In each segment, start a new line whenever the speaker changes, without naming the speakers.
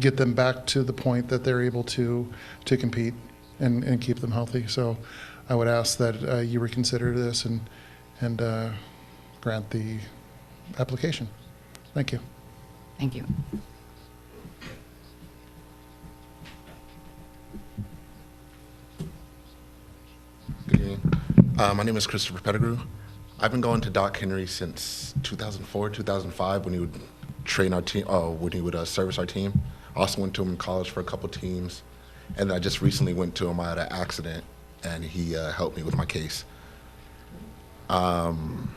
get them back to the point that they're able to, to compete and, and keep them healthy. So I would ask that uh, you reconsider this and, and uh, grant the application. Thank you.
Thank you.
Good evening. Uh, my name is Christopher Pettigrew. I've been going to Doc Henry since 2004, 2005, when he would train our team, uh, when he would uh, service our team. I also went to him in college for a couple teams, and I just recently went to him. I had an accident, and he uh, helped me with my case. Um,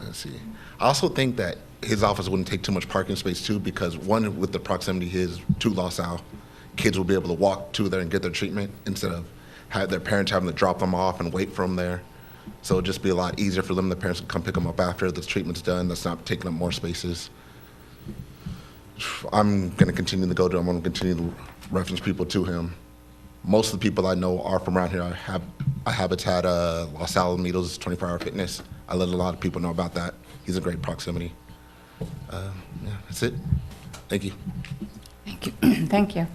let's see. I also think that his office wouldn't take too much parking space too, because one, with the proximity his to Los Al, kids will be able to walk to there and get their treatment instead of have their parents having to drop them off and wait for them there. So it'd just be a lot easier for them. The parents can come pick them up after the treatment's done. That's not taking up more spaces. I'm gonna continue to go to him. I'm gonna continue to reference people to him. Most of the people I know are from around here. I have I habitat uh, Los Alamitos 24 Hour Fitness. I let a lot of people know about that. He's a great proximity. Uh, yeah, that's it. Thank you.
Thank you. Thank you.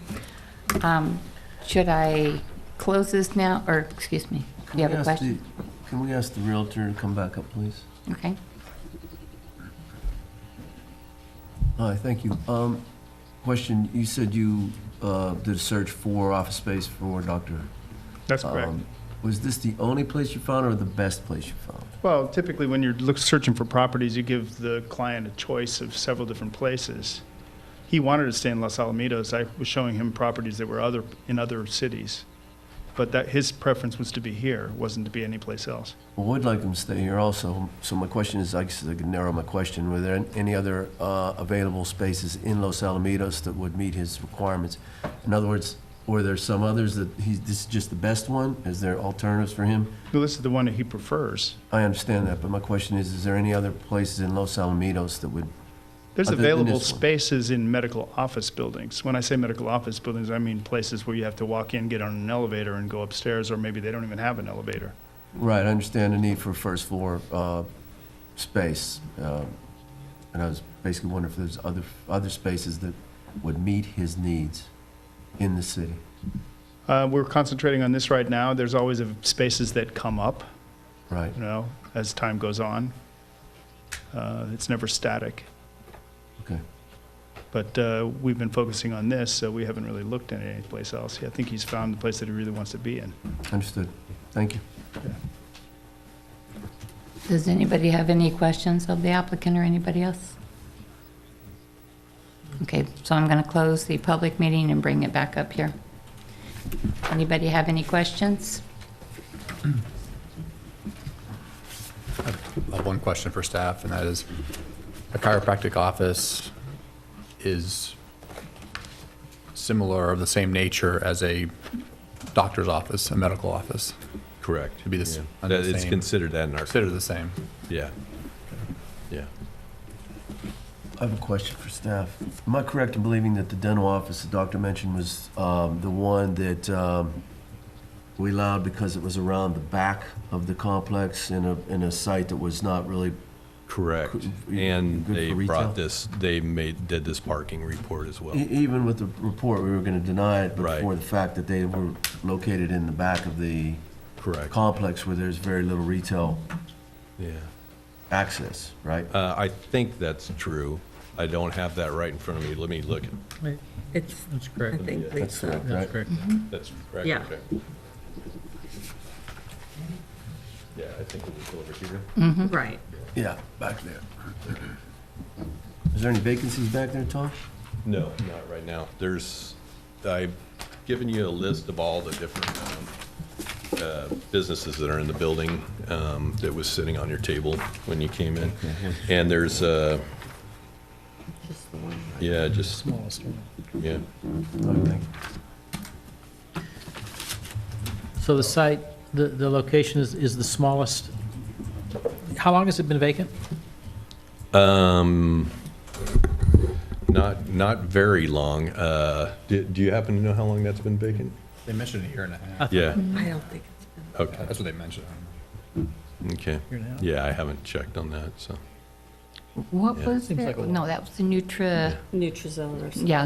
Um, Should I close this now, or, excuse me, do you
Can
have a
we ask the-
question?
Can we ask the Realtor to come back up, please?
Okay.
Hi, thank you. Um, Question, you said you uh, did a search for office space for Dr.
That's correct.
Um, Was this the only place you found or the best place you found?
Well, typically, when you're look- searching for properties, you give the client a choice of several different places. He wanted to stay in Los Alamitos. I was showing him properties that were other, in other cities. But that, his preference was to be here, wasn't to be anyplace else.
Well, we'd like them to stay here also, so my question is, I guess I can narrow my question, were there any other uh, available spaces in Los Alamitos that would meet his requirements? In other words, were there some others that he's, this is just the best one? Is there alternatives for him?
Well, this is the one that he prefers.
I understand that, but my question is, is there any other places in Los Alamitos that would,
There's
Other than
available
this one.
spaces in medical office buildings. When I say medical office buildings, I mean places where you have to walk in, get on an elevator, and go upstairs, or maybe they don't even have an elevator.
right, I understand the need for first floor uh, space. uh, And I was basically wondering if there's other, other spaces that would meet his needs in the city.
Uh, we're concentrating on this right now. There's always uh, spaces that come up.
Right,
you know, as time goes on. Uh, It's never static,
okay.
but uh, we've been focusing on this, so we haven't really looked at any place else. I think he's found the place that he really wants to be in.
Understood. Thank you.
Does anybody have any questions of the applicant or anybody else? Okay, so I'm going to close the public meeting and bring it back up here. Anybody have any questions?
I have one question for staff, and that is, a chiropractic office is similar, of the same nature as a doctor's office, a medical office,
Correct.
It'd be the s-
Yeah.
under
That-
the
It's
same.
considered that in our,
considered the same.
yeah. Yeah.
I have a question for staff. Am I correct in believing that the dental office the doctor mentioned was um, the one that um, we allowed because it was around the back of the complex in a, in a site that was not really,
Correct.
Good-
And
good for
they
retail?
brought this, they made, did this parking report as well.
e- even with the report, we were going to deny it, but
Right.
for the fact that they were located in the back of the
Correct.
complex where there's very little retail
Yeah.
access, right?
Uh, I think that's true. I don't have that right in front of me. Let me look.
Right. It's,
That's
I
correct.
think
That's
Lisa,
correct,
That's
right?
correct.
That's correct.
Yeah.
okay. Yeah, I think it was over here.
right.
Yeah, back there. Is there any vacancies back there, Tom?
No, not right now. There's, I've given you a list of all the different um, uh, businesses that are in the building um, that was sitting on your table when you came in. And there's, uh,
Just the one.
yeah, just, yeah.
Okay.
So the site, the, the location is, is the smallest. How long has it been vacant?
Um, Not, not very long. Uh, Do do you happen to know how long that's been vacant?
They mentioned a year and a half.
Yeah,
I don't think it's been.
okay,
That's what they mentioned. I don't know.
okay.
Year and a half.
Yeah, I haven't checked on that, so.
What
Yeah.
was
Seems
the,
like a lot.
no, that was the Nutra,
Nutrizilla or something.
yeah,